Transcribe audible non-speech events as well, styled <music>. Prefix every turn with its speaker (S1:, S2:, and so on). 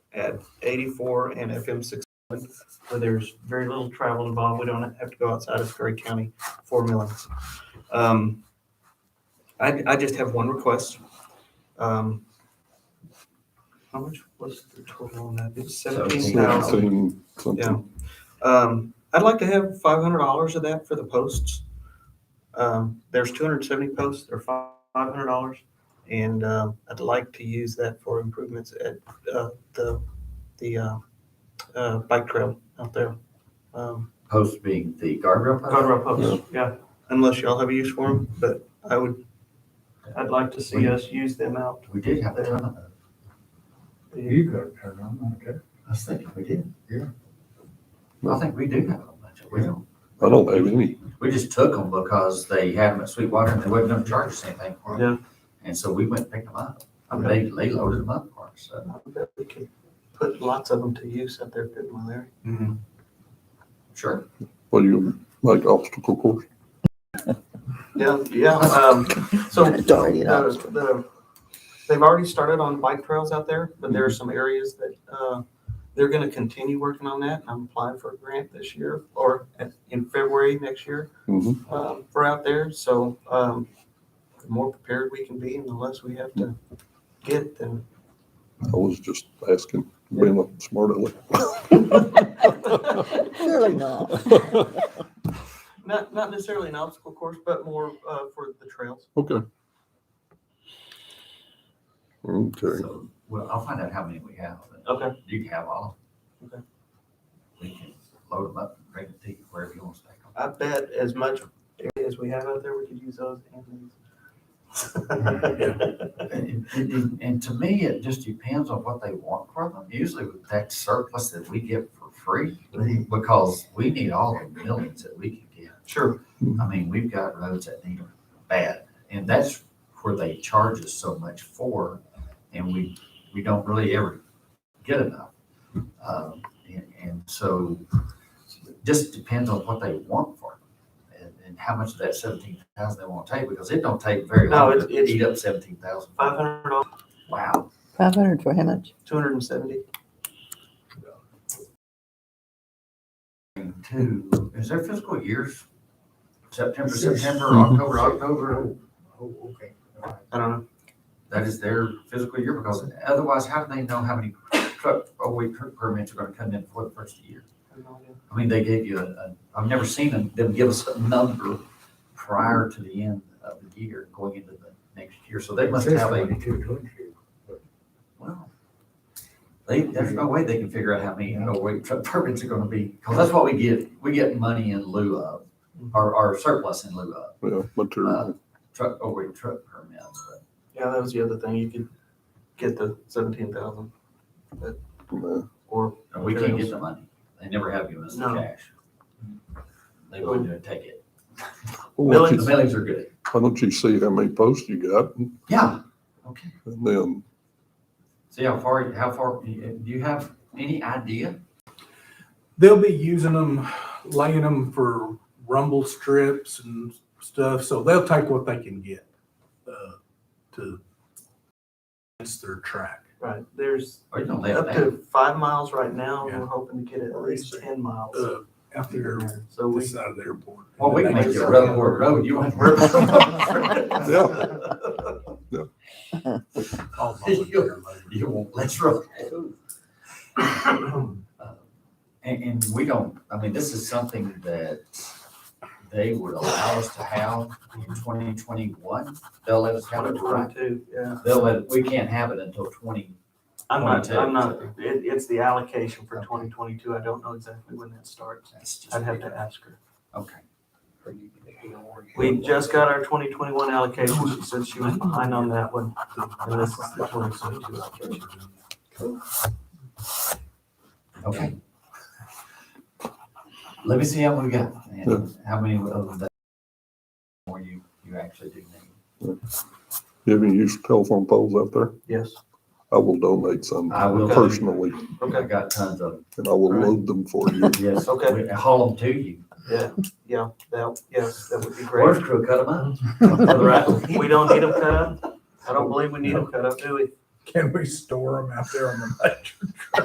S1: at eighty-four and FM six, where there's very little travel involved. We don't have to go outside of Curry County for millings. Um, I, I just have one request. Um, How much was the total on that? It's seventeen thousand.
S2: Seventeen something.
S1: Um, I'd like to have five hundred dollars of that for the posts. Um, there's two hundred and seventy posts, they're five hundred dollars. And, um, I'd like to use that for improvements at, uh, the, the, uh, uh, bike trail out there. Um,
S3: Post being the guardrail post?
S4: Guardrail posts, yeah.
S1: unless y'all have a use for them, but I would,
S4: I'd like to see us use them out.
S3: We did have a ton of those.
S5: You got it, Karen, I'm okay.
S3: I was thinking we did.
S5: Yeah.
S3: I think we do have a bunch of them.
S2: I don't have any.
S3: We just took them because they had them at Sweetwater and they wasn't gonna charge us anything for them. And so we went and picked them up. I mean, they, they loaded them up for us, so.
S1: I bet we could put lots of them to use out there, couldn't we, Larry?
S3: Sure.
S2: What do you, like obstacle course?
S1: Yeah, yeah, um, so
S6: Darn it.
S1: the, the, they've already started on bike trails out there, but there are some areas that, uh, they're gonna continue working on that. I'm applying for a grant this year or at- in February next year,
S2: Mhm.
S1: um, for out there. So, um, the more prepared we can be and the less we have to get, then.
S2: I was just asking, being a smart aleck.
S6: Surely not.
S1: <laughs> Not, not necessarily an obstacle course, but more, uh, for the trails.
S2: Okay. Okay,
S3: So, well, I'll find out how many we have.
S1: Okay.
S3: You can have all of
S1: Okay.
S3: them. We can load them up and bring them to you wherever you want to take them.
S1: I bet as much as we have out there, we could use those and these.
S3: And, and- and to me, it just depends on what they want from them. Usually with that surplus that we get for free,
S1: Mm-hmm.
S3: because we need all the millions that we can get.
S1: Sure,
S3: I mean, we've got roads that need them bad, and that's where they charge us so much for, and we, we don't really ever get enough. Um, and, and so it just depends on what they want for them and, and how much of that seventeen thousand they want to take, because it don't take very
S1: No,
S3: long
S1: it's-
S3: to
S1: it's-
S3: eat up seventeen thousand.
S1: five hundred dollars,
S3: Wow.
S6: <laughs> Five hundred for how much?
S1: two hundred and seventy.
S3: And Two, is their fiscal years September, September, October, October?
S5: Mm-hmm. Oh, okay. All right.
S1: I don't know.
S3: That is their fiscal year because otherwise how do they know how many truck, overweight truck permits are gonna come in for the first of the year?
S1: I have no idea.
S3: I mean, they gave you a, a, I've never seen them, them give us a number prior to the end of the year, going into the next year. So they must
S5: It says
S3: have a,
S5: 22, 22.
S3: well, they, there's no way they can figure out how many overweight truck permits are gonna be, because that's what we get, we get money in lieu of, or, or surplus in lieu of.
S2: yeah, material.
S3: truck, overweight truck permits, but
S1: Yeah, that was the other thing. You could get the seventeen thousand
S2: Nah.
S1: or
S3: no, we can't get the money. They never have given us the
S1: No.
S3: cash. They wouldn't do it, take it.
S2: Why don't
S3: Millings,
S2: you-
S3: the millings are good.
S2: why don't you see how many posts you got and
S3: Yeah. Okay.
S2: then,
S3: See how far, how far, do you have any idea?
S7: They'll be using them, laying them for rumble strips and stuff, so they'll take what they can get uh, to fence their track.
S1: right. There's
S3: Or you don't let
S1: up
S3: that?
S1: to five miles right now. and
S7: Yeah.
S1: We're hoping to get at least ten miles.
S7: Uh, out there,
S1: So
S7: this
S1: we.
S7: side of the airport.
S3: Well, we can make it a road, or road, you want. <laughs>
S2: Yeah.
S7: All volunteer
S3: <laughs> You won't, let's road.
S7: labor.
S3: <coughs> And, and we don't, I mean, this is something that they would allow us to have in twenty twenty-one. They'll let us have it, right?
S1: Twenty-two, yeah.
S3: They'll let, we can't have it until twenty
S1: I'm not,
S3: 22.
S1: I'm not, it, it's the allocation for twenty twenty-two. I don't know exactly when that starts.
S3: That's just.
S1: I'd have to ask her.
S3: Okay.
S1: We just got our twenty twenty-one allocation. She said she was behind on that one. And this is the twenty twenty-two allocation.
S3: Okay. Let me see how many we got and how many of that more you, you actually do need.
S2: you have any use of telephone poles out there?
S1: Yes.
S2: I will donate some
S3: I will.
S2: personally
S3: I
S1: Okay.
S3: got tons of
S2: and I will
S1: Right.
S2: load them for you.
S3: them. Yes.
S1: Okay.
S3: we- Haul them to you.
S1: Yeah, yeah, that, yes, that would be great.
S3: Forest crew cut them up.
S1: Right, we don't need them cut up. I don't believe we need them cut up, do we?
S3: <laughs>
S7: Can we store them out there on the major?